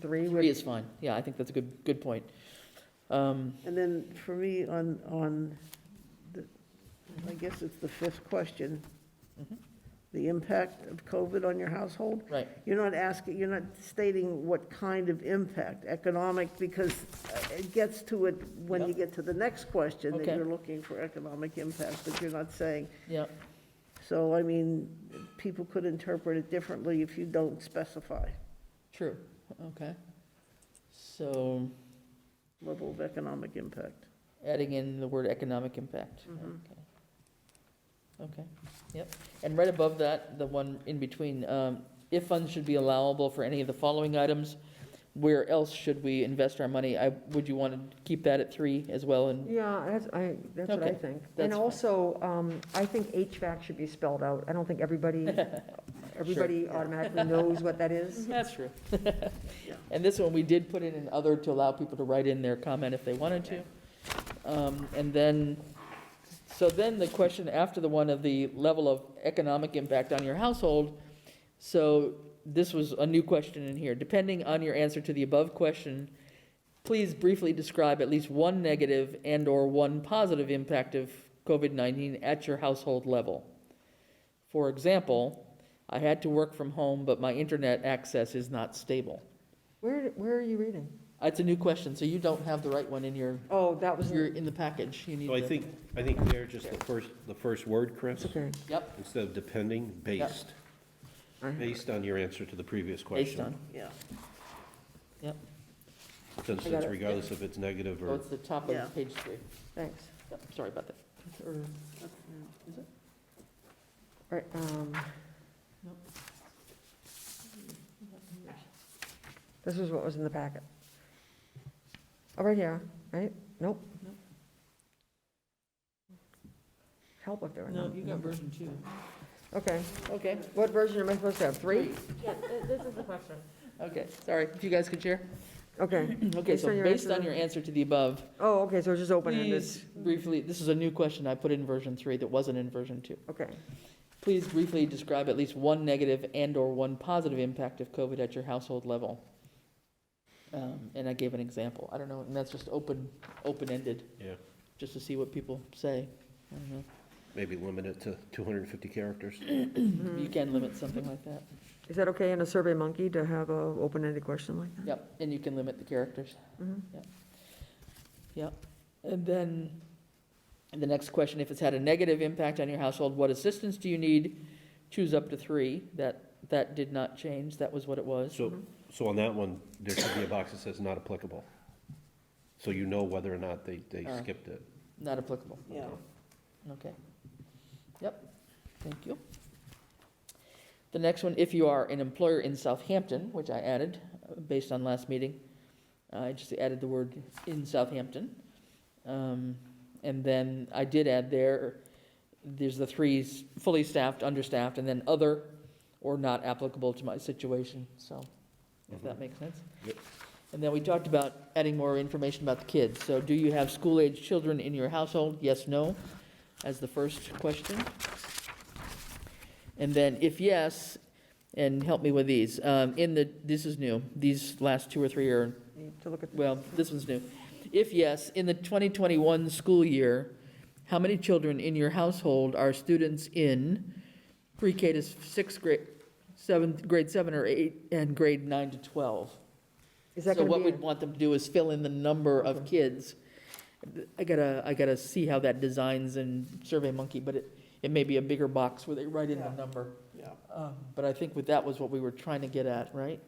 Three Three would, is fine, yeah, I think that's a good, good point. Um, And then for me, on, on, the I guess it's the fifth question, Mhm. the impact of COVID on your household? Right, You're not asking, you're not stating what kind of impact, economic, because it gets to it when you Yep. get to the next question, that Okay. you're looking for economic impact, but you're not saying, yeah, so, I mean, people could interpret it differently if you don't specify true, okay. So level of economic impact. adding in the word economic impact. Mm-hmm. Okay. Okay, yep. And right above that, the one in between, um, if funds should be allowable for any of the following items, where else should we invest our money? I, would you want to keep that at three as well and, yeah, that's, I, that's what I Okay, think. that's And fine. also, um, I think HVAC should be spelled out. I don't think everybody, everybody automatically knows what that is. that's true. And this one, we did put in an other to allow people to write in their comment if they wanted to. Um, And then, so then the question after the one of the level of economic impact on your household, so this was a new question in here. Depending on your answer to the above question, please briefly describe at least one negative and/or one positive impact of COVID-19 at your household level. For example, I had to work from home, but my internet access is not stable. Where, where are you reading? That's a new question, so you don't have the right one in your, Oh, that was, you're in the package, you need So I the- think, I think there, just the first, the first word, Chris, it's okay. Yep, instead of depending, based, based on your answer to the previous question. based on, Yeah, yep, For instance, regardless if it's negative oh, or, it's the top Yeah. of page three, Thanks. Yep, sorry about that. Or- Right, um, Nope. This is what was in the packet. Oh, right here, right? Nope. Nope. Help if there were. No, none. you got version two. Okay, Okay. what version am I supposed to have? Three? Yeah, th- this is the question. Okay, sorry, if you guys could share. Okay, Okay, so on your based answer on to- your answer to the above, oh, okay, so it's just open ended. please briefly, this is a new question I put in version three that wasn't in version two. Okay, Please briefly describe at least one negative and/or one positive impact of COVID at your household level. Um, And I gave an example. I don't know, and that's just open, open-ended, yeah, just to see what people say. I don't know. maybe limit it to 250 characters. You can limit something like that. is that okay in a Survey Monkey to have a open-ended question like that? Yep, and you can limit the characters. Mhm. And then, the next question, if it's had a negative impact on your household, what assistance do you need? Choose up to three. That, that did not change. That was what it was. So, so on that one, there should be a box that says not applicable. So you know whether or not they, they Uh. skipped it. Not applicable. yeah. Okay. Yep, thank you. The next one, if you are an employer in Southampton, which I added uh, based on last meeting, uh, I just added the word in Southampton. Um, And then I did add there, there's the three, s- fully staffed, understaffed, and then other or not applicable to my situation, so, if that makes sense. Mm-hmm. Yep. And then we talked about adding more information about the kids. So do you have school-age children in your household? Yes, no? as the first question. And then if yes, and help me with these, um, in the, this is new, these last two or three are, To look at, well, this one's new. If yes, in the 2021 school year, how many children in your household are students in pre-K to sixth grade, seventh, grade seven or eight, and grade nine to 12? is that So gonna what be, we'd in- want them to do is fill in the number of Okay. kids. I gotta, I gotta see how that designs in Survey Monkey, but it, it may be a bigger box where they write in the Yeah. number. Yeah. Um, But I think with that was what we were trying to get at, right?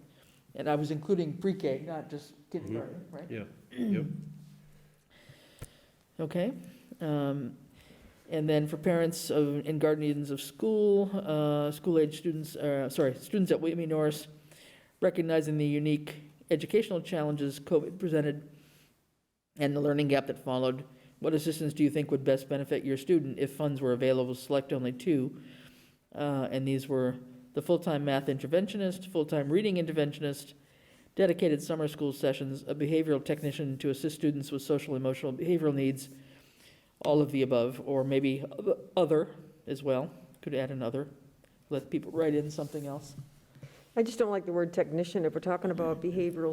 And I was including pre-K, not just kindergarten, right? Yeah, yep. Okay. um, And then for parents of, and guardians of school, uh, school-age students, uh, sorry, students at Whitney Norris, recognizing the unique educational challenges COVID presented and the learning gap that followed, what assistance do you think would best benefit your student if funds were available? Select only two. Uh, And these were the full-time math interventionist, full-time reading interventionist, dedicated summer school sessions, a behavioral technician to assist students with social, emotional, and behavioral needs, all of the above, or maybe oth- other as well, could add another, let people write in something else. I just don't like the word technician. If we're talking about behavioral